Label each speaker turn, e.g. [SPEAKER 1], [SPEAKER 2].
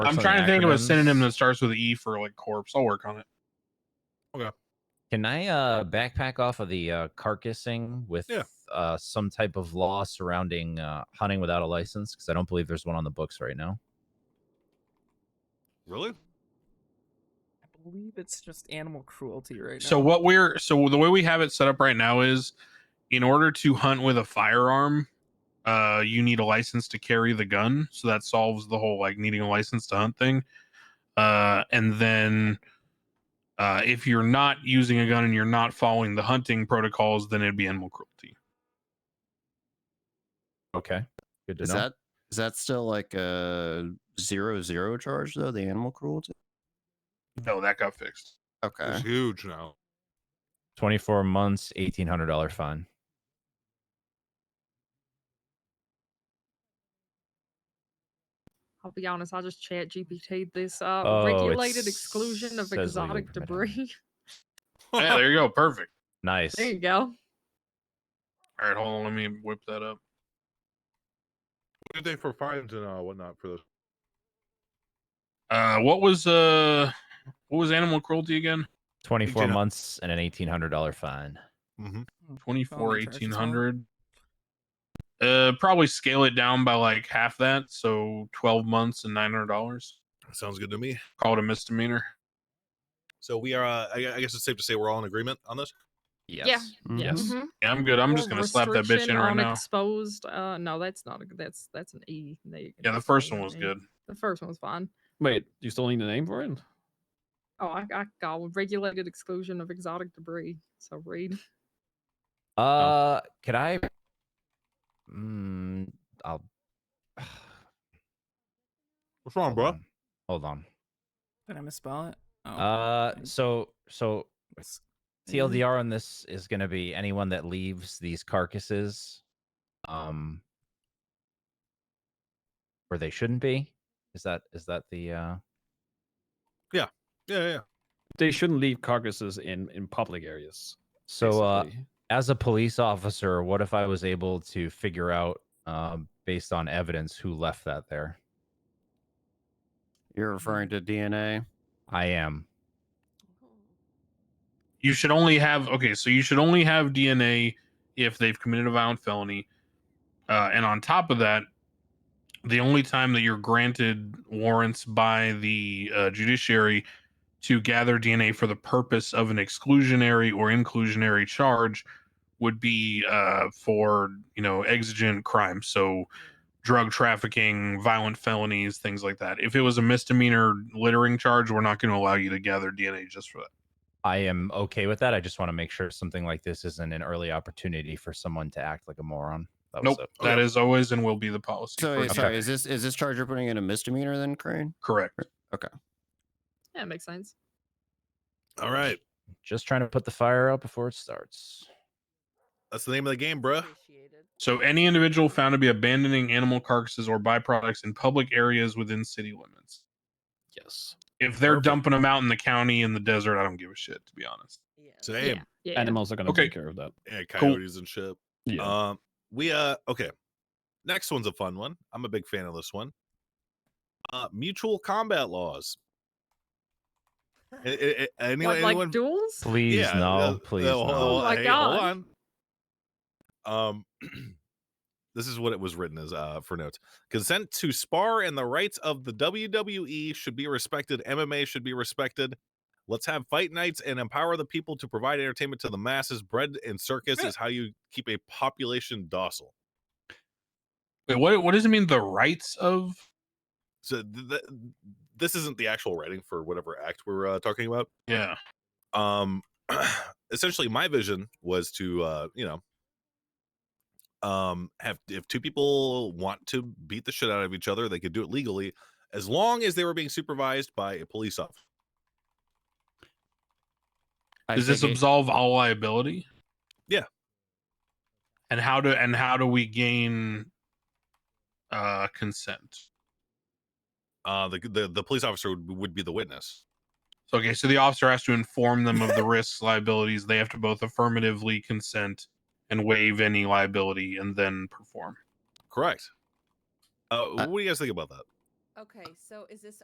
[SPEAKER 1] Or
[SPEAKER 2] I'm
[SPEAKER 1] some
[SPEAKER 2] trying to think of a
[SPEAKER 1] acronyms.
[SPEAKER 2] synonym that starts with E for like corpse. I'll work on it.
[SPEAKER 1] Can I uh backpack off of the uh carcassing with
[SPEAKER 3] Yeah.
[SPEAKER 1] uh some type of law surrounding uh hunting without a license? Because I don't believe there's one on the books right now.
[SPEAKER 3] Really?
[SPEAKER 4] I believe it's just animal cruelty right now.
[SPEAKER 2] So what we're so the way we have it set up right now is, in order to hunt with a firearm, uh, you need a license to carry the gun. So that solves the whole like needing a license to hunt thing. Uh, and then, uh, if you're not using a gun and you're not following the hunting protocols, then it'd be animal cruelty.
[SPEAKER 1] Okay. Good to
[SPEAKER 5] Is
[SPEAKER 1] know.
[SPEAKER 5] that is that still like a zero zero charge though? The animal cruelty.
[SPEAKER 2] No, that got fixed.
[SPEAKER 5] Okay.
[SPEAKER 3] It's huge now.
[SPEAKER 1] 24 months, $1,800 fine.
[SPEAKER 6] I'll be honest, I just chat GPT this uh,
[SPEAKER 1] Oh, it
[SPEAKER 6] regulated exclusion of
[SPEAKER 1] says legal
[SPEAKER 6] exotic
[SPEAKER 1] permitted.
[SPEAKER 6] debris.
[SPEAKER 2] yeah, there you go. Perfect.
[SPEAKER 1] Nice.
[SPEAKER 6] there you go.
[SPEAKER 2] All right, hold on. Let me whip that up.
[SPEAKER 3] What did they for fines and uh, whatnot for this?
[SPEAKER 2] Uh, what was uh, what was animal cruelty again?
[SPEAKER 1] 24
[SPEAKER 3] 1800
[SPEAKER 1] months and an $1,800 fine.
[SPEAKER 3] Mm-hmm.
[SPEAKER 4] Only
[SPEAKER 2] 24
[SPEAKER 4] charges on-
[SPEAKER 2] 1800 uh probably scale it down by like half that so 12 months and 900 dollars
[SPEAKER 3] Sounds good to me.
[SPEAKER 2] call it a misdemeanor
[SPEAKER 3] So we are. Uh, I, gu- I guess it's safe to say we're all in agreement on this.
[SPEAKER 6] Yeah.
[SPEAKER 5] Yes. Mhm.
[SPEAKER 1] Yes.
[SPEAKER 6] Mhm.
[SPEAKER 2] yeah i'm good i'm
[SPEAKER 6] Or
[SPEAKER 2] just gonna slap that bitch
[SPEAKER 6] restriction
[SPEAKER 2] in right
[SPEAKER 6] on
[SPEAKER 2] now
[SPEAKER 6] Exposed. Uh, no, that's not a good. That's that's an E. No, you can
[SPEAKER 2] yeah the
[SPEAKER 6] just
[SPEAKER 2] first
[SPEAKER 6] leave
[SPEAKER 2] one
[SPEAKER 6] it
[SPEAKER 2] was
[SPEAKER 6] an E.
[SPEAKER 2] good
[SPEAKER 6] The first one was fine.
[SPEAKER 7] Wait, you still need a name for it?
[SPEAKER 6] Oh, I, I got regulated exclusion of exotic debris. So read.
[SPEAKER 1] Uh, could I? Mm, I'll.
[SPEAKER 3] What's
[SPEAKER 1] Hold
[SPEAKER 3] wrong, bro?
[SPEAKER 6] Um,
[SPEAKER 1] on. Hold on.
[SPEAKER 4] Did I misspell it? Oh,
[SPEAKER 1] Uh,
[SPEAKER 4] I-
[SPEAKER 1] so so
[SPEAKER 4] it's- Mm-hmm.
[SPEAKER 1] TLDR on this is going to be anyone that leaves these carcasses, um, where they shouldn't be. Is that is that the uh?
[SPEAKER 3] Yeah, yeah, yeah.
[SPEAKER 7] They shouldn't leave carcasses in in public areas.
[SPEAKER 1] So uh,
[SPEAKER 7] basically.
[SPEAKER 1] as a police officer, what if I was able to figure out, um, based on evidence, who left that there?
[SPEAKER 5] You're referring to DNA.
[SPEAKER 1] I am.
[SPEAKER 2] you should only have okay so you should only have dna if they've committed a violent felony uh, and on top of that the only time that you're granted warrants by the uh, judiciary to gather dna for the purpose of an exclusionary or inclusionary charge would be uh, for you know exigent crimes so drug trafficking violent felonies things like that if it was a misdemeanor littering charge we're not going to allow you to gather dna just for that
[SPEAKER 1] I am okay with that. I just want to make sure something like this isn't an early opportunity for someone to act like a moron. That was
[SPEAKER 2] Nope,
[SPEAKER 1] it.
[SPEAKER 2] that
[SPEAKER 3] Okay.
[SPEAKER 2] is always and will be the policy.
[SPEAKER 5] So
[SPEAKER 2] for-
[SPEAKER 5] wait, sorry, is this is this charge you're putting in a misdemeanor then, Crane?
[SPEAKER 2] correct.
[SPEAKER 6] Yeah, it makes sense.
[SPEAKER 3] All right,
[SPEAKER 1] Just trying to put the fire out before it starts.
[SPEAKER 3] that's the name of the game, bruh.
[SPEAKER 2] So any individual found to be abandoning animal carcasses or byproducts in public areas within city limits.
[SPEAKER 7] yes,
[SPEAKER 2] If they're
[SPEAKER 3] Perfect.
[SPEAKER 2] dumping them out in the county in the desert, I don't give a shit to be honest.
[SPEAKER 3] Damn, yeah,
[SPEAKER 6] Yeah. Yeah.
[SPEAKER 7] animals are going to
[SPEAKER 2] Okay.
[SPEAKER 7] take care of that.
[SPEAKER 2] Cool.
[SPEAKER 3] coyotes and shit.
[SPEAKER 7] Yeah.
[SPEAKER 3] Um, we uh, okay. Next one's a fun one. I'm a big fan of this one. Uh, mutual combat laws. A- a- a-
[SPEAKER 6] What,
[SPEAKER 3] anyone,
[SPEAKER 6] like
[SPEAKER 3] anyone
[SPEAKER 6] duels?
[SPEAKER 1] Please no,
[SPEAKER 3] uh,
[SPEAKER 1] please
[SPEAKER 3] uh,
[SPEAKER 1] no.
[SPEAKER 3] hold-
[SPEAKER 6] Oh
[SPEAKER 3] hold-
[SPEAKER 6] my
[SPEAKER 3] hey,
[SPEAKER 6] God.
[SPEAKER 3] on. Um, this is what it was written as uh, for notes. Consent to spar and the rights of the WWE should be respected. MMA should be respected. Let's have fight nights and empower the people to provide entertainment to the masses. Bread and circus is how you keep a population docile.
[SPEAKER 2] Wait, what what does it mean the rights of
[SPEAKER 3] So th- th- this isn't the actual writing for whatever act we're uh, talking about.
[SPEAKER 2] yeah.
[SPEAKER 3] um essentially my vision was to uh you know um have if two people want to beat the shit out of each other they could do it legally as long as they were being supervised by a police officer
[SPEAKER 5] I
[SPEAKER 2] Does this
[SPEAKER 5] think it-
[SPEAKER 2] absolve all liability?
[SPEAKER 3] Yeah.
[SPEAKER 2] And how do and how do we gain uh consent?
[SPEAKER 3] uh the the, the police officer would, would be the witness
[SPEAKER 2] So, okay, so the officer has to inform them of the risks, liabilities. They have to both affirmatively consent and waive any liability and then perform.
[SPEAKER 3] correct uh, what do you guys think about that
[SPEAKER 8] Okay, so is this